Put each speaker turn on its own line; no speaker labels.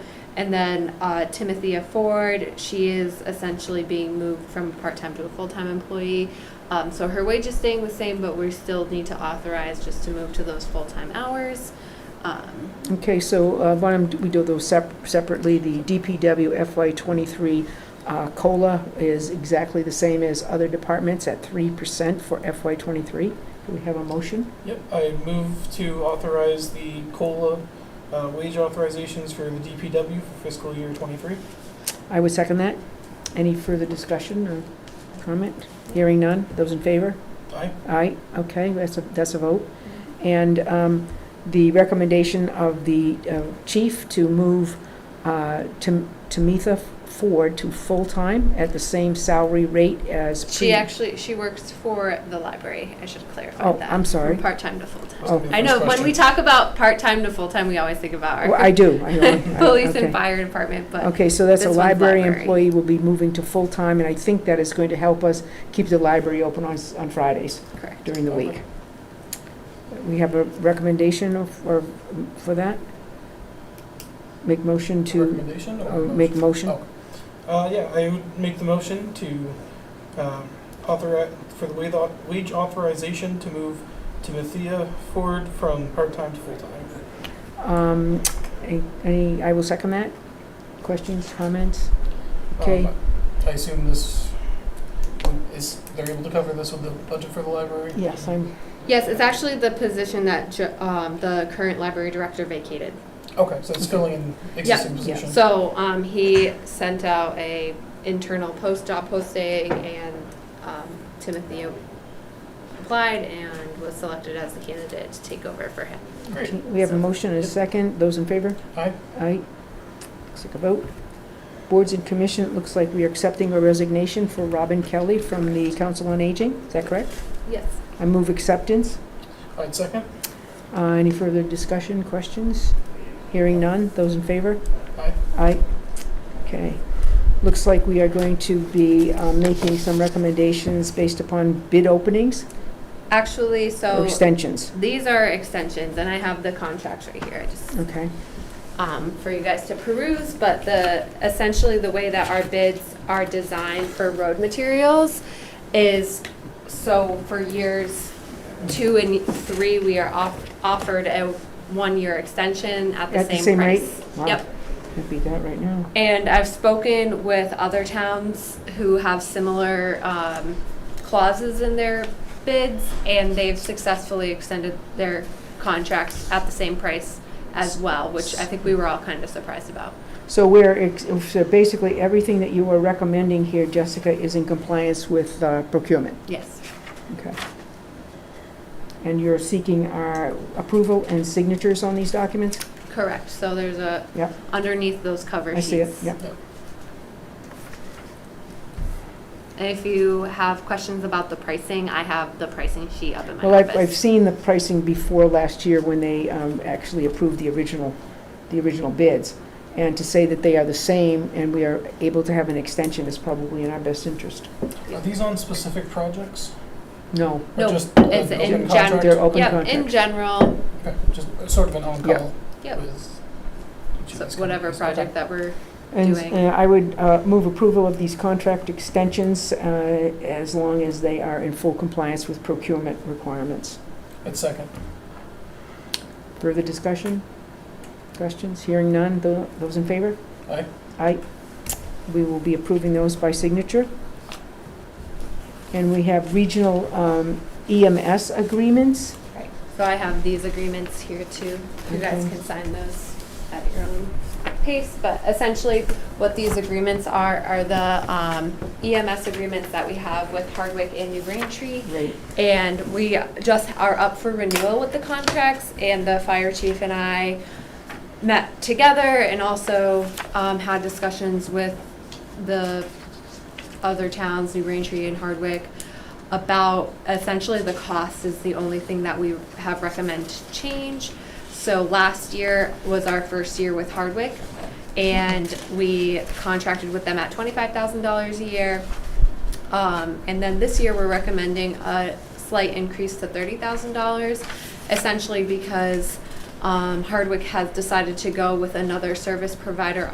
And then uh, Timothea Ford, she is essentially being moved from part-time to a full-time employee. Um, So her wage is staying the same, but we still need to authorize just to move to those full-time hours. Um,
Okay, so uh, why don't we do those sep- separately? The DPW FY23 uh, COLA is exactly the same as other departments at 3% for FY23. Do we have a motion?
Yep, I move to authorize the COLA uh, wage authorizations for the DPW for fiscal year '23.
I would second that. Any further discussion or comment? Hearing none. Those in favor?
Aye.
Aye, okay, that's a, that's a vote. And um, the recommendation of the uh, chief to move uh, Tam- Tamitha Ford to full-time at the same salary rate as. pre-
She actually, she works for the library, I should clarify
Oh,
that.
I'm sorry.
From part-time to full-time.
That's gonna be the
Oh, I know,
first
when we
question.
talk about part-time to full-time, we always think about
Well, Oh, I
our
do, I know. I-
police
okay.
and fire department, but
Okay, so that's a
This one's
library
library.
employee will be moving to full-time, and I think that is going to help us keep the library open on, s- on Fridays
correct.
during the
Okay.
week. We have a recommendation of- or, for that? Make motion to
Recommendation
Uh,
or motion?
Make motion.
Oh. Uh, yeah, I would make the motion to, um, authorize, for the wage au- wage authorization to move Timothea Ford from part-time to full-time.
Um, a- Any, I will second that. Questions, comments? Okay.
Um, I assume this, would- is, they're able to cover this with the budget for the library?
Yes, I'm,
Yes, it's actually the position that ju- um, the current library director vacated.
Okay, so it's filling in existing position.
So um, he sent out a internal post job posting, and um, Timothy applied and was selected as the candidate to take over for him.
Great,
we have a motion and a second. Those in favor?
aye,
Aye. Looks like a vote. Boards and commission, it looks like we are accepting a resignation for Robin Kelly from the Council on Aging. Is that correct?
Yes.
I move acceptance.
I'd second,
Uh, Any further discussion, questions? Hearing none. Those in favor?
aye,
Aye. Okay. Looks like we are going to be um, making some recommendations based upon bid openings
Actually,
or
so
extensions.
these are extensions, and I have the contracts right here. I just
Okay.
um, for you guys to peruse, but the, essentially the way that our bids are designed for road materials is, so for years two and three, we are off, offered a one-year extension at the same
rate?
price.
Wow.
Yep.
Can't beat that right now.
And I've spoken with other towns who have similar um, clauses in their bids, and they've successfully extended their contracts at the same price as well, which I think we were all kind of surprised about.
So we're, ex- so basically, everything that you are recommending here, Jessica, is in compliance with uh, procurement.
Yes.
Okay. And you're seeking our approval and signatures on these documents?
Correct, so there's a,
Yep.
underneath those cover
I
sheets.
see it, yep.
And if you have questions about the pricing, I have the pricing sheet up in my
Well, I've, I've
office.
seen the pricing before last year when they um, actually approved the original, the original bids. And to say that they are the same and we are able to have an extension is probably in our best interest.
are these on specific projects?
No,
Or
No,
just
it's
an
in gen-
open contract?
they're open
Yep, in
contracts.
general,
Okay, just sort of an on-call
Yep.
with. each of
so
these
whatever
companies.
project that we're,
And
Doing.
uh, I would uh, move approval of these contract extensions uh, as long as they are in full compliance with procurement requirements.
Okay, I'd second,
Further discussion? Questions? Hearing none. Tho- Those in favor?
aye,
Aye. We will be approving those by signature. And we have regional um, EMS agreements.
so I have these agreements here too. You guys
Okay.
can sign those at your own pace, but essentially what these agreements are, are the um, EMS agreements that we have with Hardwick and New Braintree.
Right.
And we just are up for renewal with the contracts, and the fire chief and I met together and also um, had discussions with the other towns, New Braintree and Hardwick, about essentially the cost is the only thing that we have recommended change. So last year was our first year with Hardwick, and we contracted with them at twenty-five thousand dollars a year. Um, and then this year, we're recommending a slight increase to thirty thousand dollars, essentially because, um, Hardwick has decided to go with another service provider